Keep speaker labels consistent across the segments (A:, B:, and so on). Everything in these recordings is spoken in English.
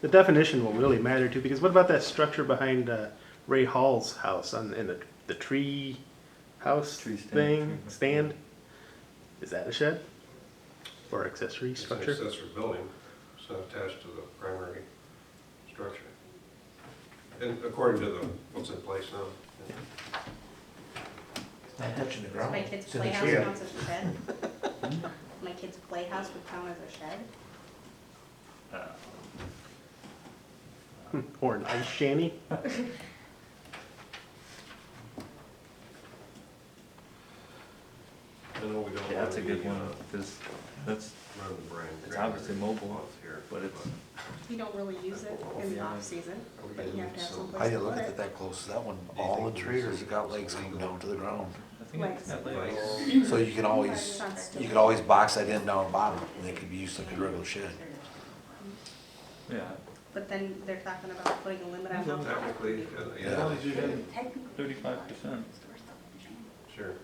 A: the definition will really matter too, because what about that structure behind uh, Ray Hall's house on in the the tree house
B: Tree stand,
A: thing
B: tree-
A: stand? Is that a shed or accessory
C: It's an
A: structure?
C: accessory building, it's not attached to the primary structure. And according to the, what's in place now. yeah.
D: It's not touching the
E: Does
D: ground.
E: my kid's
D: It's in the
E: playhouse
D: tree.
E: count as a shed? My kid's playhouse would count as a shed?
A: Hmm, Or an ice shanty?
C: I know we don't.
B: Yeah, that's a
C: wanna
B: good
C: be,
B: one,
C: uh,
B: because that's,
C: Run the brand.
B: It's obviously mobile,
C: off here,
B: but it's-
E: We don't really use it
D: Oh,
E: in the
B: Yeah.
E: off-season.
C: Are we
E: but
C: gonna
E: you have
C: need
E: to have
C: some-
E: some
C: How
D: How
E: place
D: you
E: to
D: look
E: put
D: at it
E: it.
D: that close, is that one
C: you
D: all in
C: think
D: tree or has
C: this
D: it got
C: is
D: legs hanging
C: legal?
D: down to the ground?
B: I think it's got
C: Right.
B: labels.
D: So you can always, you can always box that in down bottom and it could be used like a regular shed.
B: yeah.
E: But then they're talking about putting a limit on how high.
C: Technically, uh,
D: Yeah.
B: As long
C: yeah,
B: as you have
E: Technically,
B: thirty-five percent.
C: sure.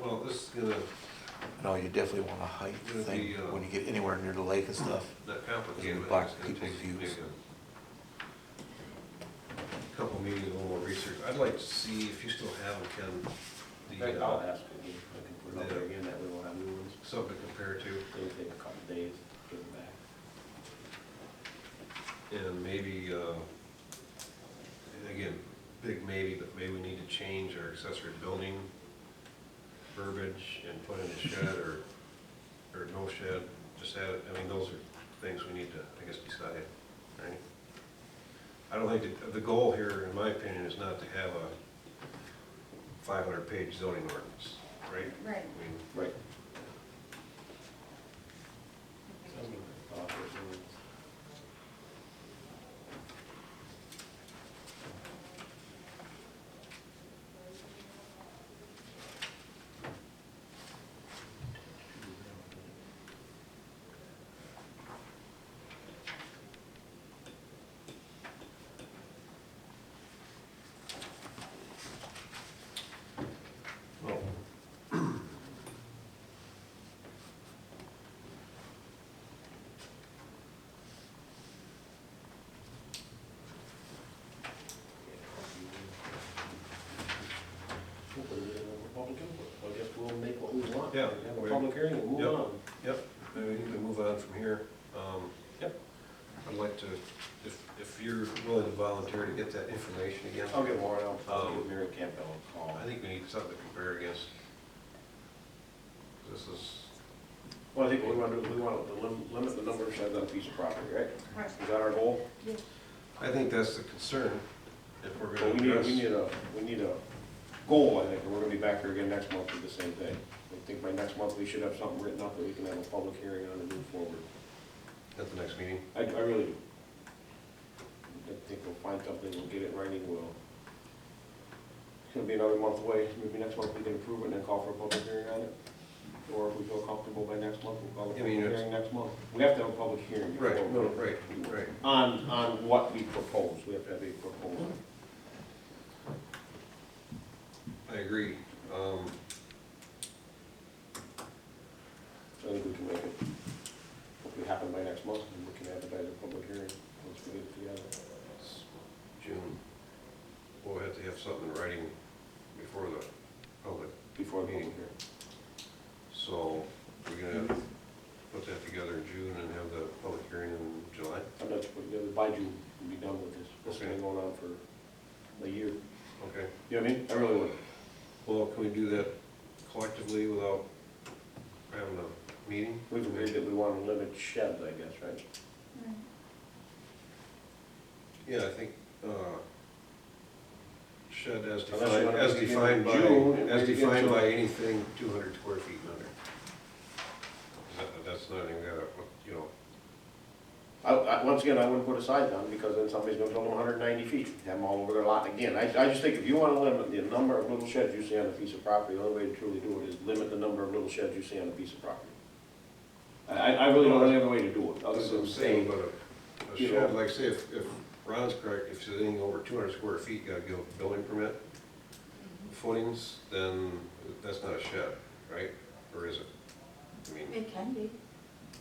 C: Well, this is gonna,
D: No, you definitely want a height
C: It'll
D: thing
C: be, uh,
D: when you get anywhere near the lake and stuff.
C: not complicated, but
D: block
C: it's gonna
D: people's
C: take maybe
D: views.
C: a Couple meetings, a little more research. I'd like to see if you still have, them, Ken, the
F: I'll
C: uh,
F: ask again, I can put it out there again, that way we'll have new ones,
C: something to compare to.
F: it'll take a couple days, to get them back.
C: And maybe, uh, and again, big maybe, but maybe we need to change our accessory building verbiage and put in a shed or, or no shed, just add, I mean, those are things we need to, I guess, decide, right? I don't think, the, the goal here, in my opinion, is not to have a five hundred page zoning ordinance, right?
E: Right.
C: I mean,
F: Right. Uh, there's new ones.
C: well,
F: Hopefully we don't have a public input, I guess we'll make what we want.
C: Yeah.
F: Have a public hearing and move
C: Yep.
F: on.
C: Yep, I mean, we need to move on from here. Um, Yep, I'd like to, if, if you're willing to volunteer to get that information again,
F: I'll get Warren, I'll- I'll
C: Um,
F: give Mary Campbell a call.
C: I think we need something to compare against. This is,
F: Well, I think we want to, we want to lim- limit the number of sheds on a piece of property, right?
E: Right.
F: Is that our goal?
C: I think that's the concern, if we're
F: But
C: gonna
F: we need,
C: address.
F: we need a, we need a goal, I think, and we're gonna be back here again next month with the same thing. I think by next month, we should have something written up that we can have a public hearing on and move forward.
C: At the next meeting,
F: I, I really do. I think we'll find something, we'll get it writing, we'll. It's gonna be another month away, maybe next month we can approve it and then call for a public hearing on it. Or if we feel comfortable by next month, we'll call a
C: I
F: public
C: mean, it's-
F: hearing next month. We have to have a public hearing. before
C: right,
F: we-
C: no, right, right.
F: On, on what we propose, we have to have a proposal.
C: I agree. Um,
F: I think we can make it, hopefully happen by next month, and we can advertise a public hearing once we get it together.
C: it's June, we'll have to have something in writing before the public
F: Before the public
C: Meeting.
F: hearing.
C: So we're gonna put that together in June and have the public hearing in July?
F: I'm not, putting together by June, we'll be done with this. This has been
C: Okay.
F: going on for a year.
C: Okay.
F: You know what I mean? I really would.
C: Well, can we do that collectively without having a meeting?
F: We've agreed that we want to limit sheds, I guess, right?
C: Yeah, I think, uh, shed as
F: Unless you
C: defined,
F: wanna
C: as
F: make it in
C: defined by,
F: June and
C: as
F: maybe get
C: defined
F: to-
C: by anything two hundred square feet and under. That- That's not even gotta, you know,
F: I, I, once again, I wouldn't put a size on because then somebody's gonna build them hundred and ninety feet, have them all over their lot again. I, I just think if you wanna limit the number of little sheds you see on a piece of property, the only way to truly do it is limit the number of little sheds you see on a piece of property. I, I I really don't know any other way to do it, other
C: that's what I'm
F: than
C: saying,
F: saying,
C: but a- a
F: you
C: shed,
F: know-
C: like say, if, if Ron's correct, if it's anything over two hundred square feet, you gotta give a building permit, footings, then that's not a shed, right? Or is it? I mean,
G: It can be.